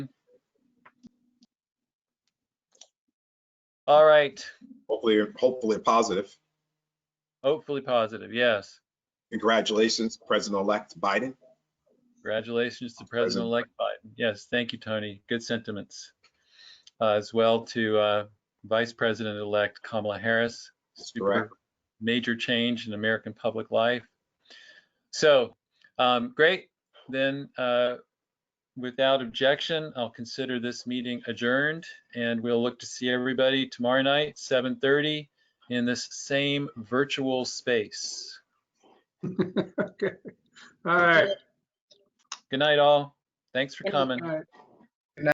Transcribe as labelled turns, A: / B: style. A: All right,
B: Hopefully, hopefully positive.
A: hopefully positive, yes.
B: Congratulations, President-elect Biden.
A: Congratulations to President-elect Biden. Yes, thank you, Tony. Good sentiments. Uh, As well to uh, Vice President-elect Kamala Harris.
B: That's correct.
A: Major change in American public life. So, um, great. Then, uh, without objection, I'll consider this meeting adjourned and we'll look to see everybody tomorrow night, 7:30 in this same virtual space.
C: Okay. All right.
A: Good night, all. Thanks for
D: Good night.
A: coming.
C: All right.